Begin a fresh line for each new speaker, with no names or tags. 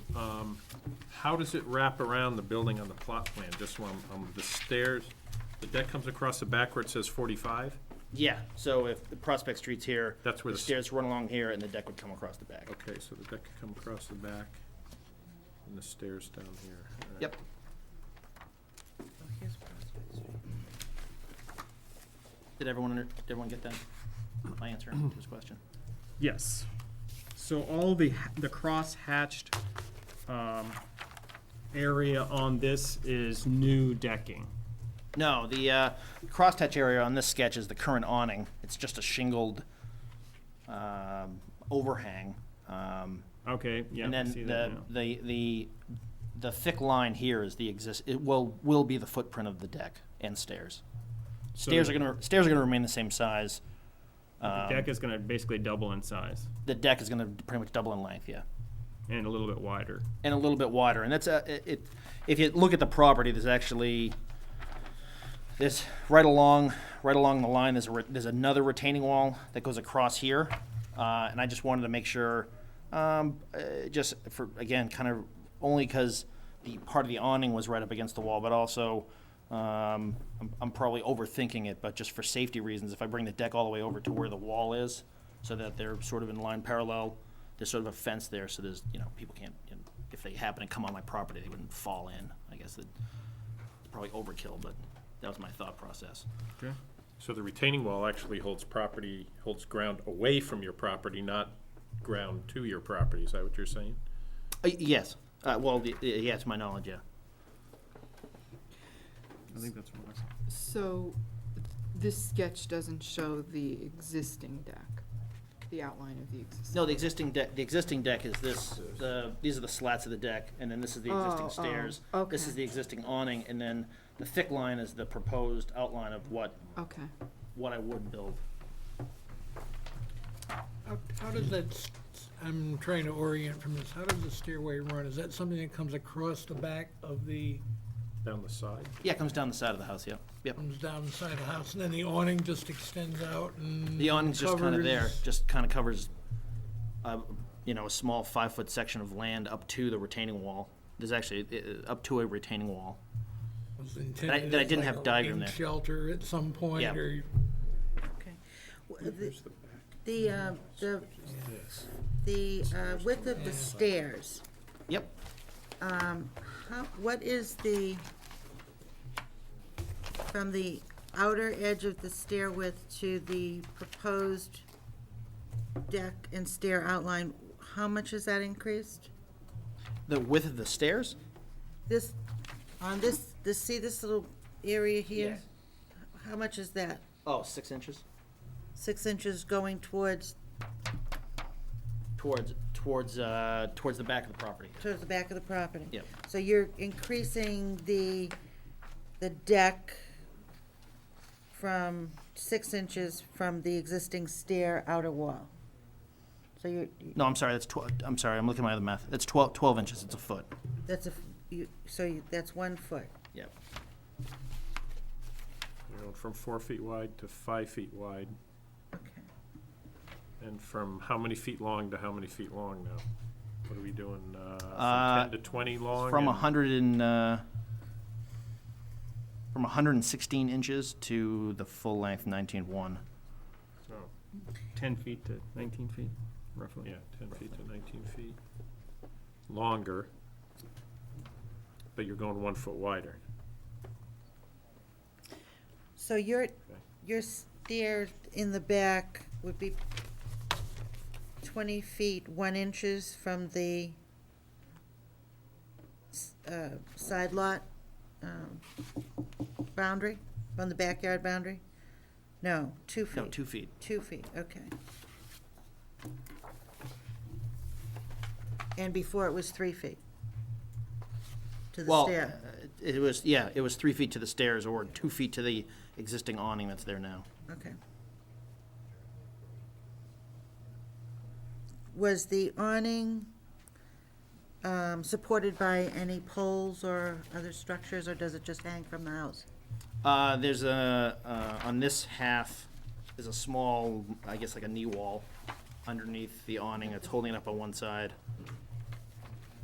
um, how does it wrap around the building on the plot plan? Just one, um, the stairs, the deck comes across the back where it says forty-five?
Yeah, so if the Prospect Street's here.
That's where the s-
Stairs run along here and the deck would come across the back.
Okay, so the deck could come across the back, and the stairs down here. All right.
Yep. Did everyone, under- did everyone get that? My answer to his question.
Yes. So all the, ha- the cross-hatched um, area on this is new decking.
No, the uh, crosshatch area on this sketch is the current awning. It's just a shingled um, overhang. Um,
Okay, yeah,
and
I
then
see that
the,
now.
the the the thick line here is the exist. It will will be the footprint of the deck and stairs. Stairs
So
are gonna stairs are gonna remain the same size.
The
um,
deck is gonna basically double in size
The deck is gonna pretty much double in length, yeah,
and a little bit wider.
and a little bit wider. And that's a it- it. If you look at the property, there's actually there's right along right along the line. There's a re- there's another retaining wall that goes across here, uh, and I just wanted to make sure, um, uh, just for again, kind of only because the part of the awning was right up against the wall, but also. Um, I'm, I'm probably overthinking it, but just for safety reasons, if I bring the deck all the way over to where the wall is, so that they're sort of in line parallel, there's sort of a fence there, so there's you know people can't, you know, if they happen to come on my property, they wouldn't fall in. I guess that probably overkill, but that was my thought process.
Okay.
So the retaining wall actually holds property, holds ground away from your property, not ground to your property, is that what you're saying?
Uh, yes, uh, well, y- y- yeah, to my knowledge, yeah.
I think that's what I saw.
So th- this sketch doesn't show the existing deck, the outline of the existing.
No, the existing deck, the existing deck is this, the, these are the slats of the deck, and then this is the
Oh, oh,
existing stairs. This is
okay.
the existing awning, and then the thick line is the proposed outline of what,
Okay.
what I would build.
How, how does that, s- s- I'm trying to orient from this, how does the stairway run? Is that something that comes across the back of the,
Down the side?
Yeah, it comes down the side of the house, yep, yep.
comes down the side of the house, and then the awning just extends out and
The awning's just kind of there,
covers-
just kind of covers, uh, you know, a small five-foot section of land up to the retaining wall. There's actually, uh, uh, up to a retaining wall.
was intended
that I
as
didn't
like
have
a
diagram
rain
there.
Shelter at some point,
Yeah.
or
Okay. W- the- The, uh, the, the uh, width of the stairs,
Yep,
um, how, what is the, from the outer edge of the stair width to the proposed deck and stair outline, how much is that increased?
the width of the stairs?
This, on this, this, see this little area here?
Yes.
How much is that?
Oh, six inches?
Six inches going towards,
Towards, towards, uh, towards the back of the property.
towards the back of the property?
Yep.
So you're increasing the, the deck from six inches from the existing stair outer wall. So you're,
No, I'm sorry, that's tw- I'm sorry, I'm looking at my other math. That's 12, 12 inches, it's a foot.
that's a, f- you, so you, that's one foot.
Yep.
You know, from four feet wide to five feet wide,
Okay.
and from how many feet long to how many feet long now? What are we doing, uh,
Uh,
from ten to twenty long?
From
and-
100 and, uh, from 116 inches to the full length 19.1.
oh,
Ten feet to nineteen feet, roughly.
Yeah, ten feet to nineteen feet. Longer, but you're going one foot wider.
So your, your stair in the back would be twenty feet, one inches from the s- uh, side lot, um, boundary, from the backyard boundary? No, two feet.
No, two feet.
Two feet, okay. And before it was three feet? To the
Well,
stair?
uh, it was, yeah, it was three feet to the stairs or two feet to the existing awning that's there now.
Okay. Was the awning um, supported by any poles or other structures, or does it just hang from the house?
Uh, there's a, uh, on this half, there's a small, I guess like a knee wall underneath the awning that's holding it up on one side.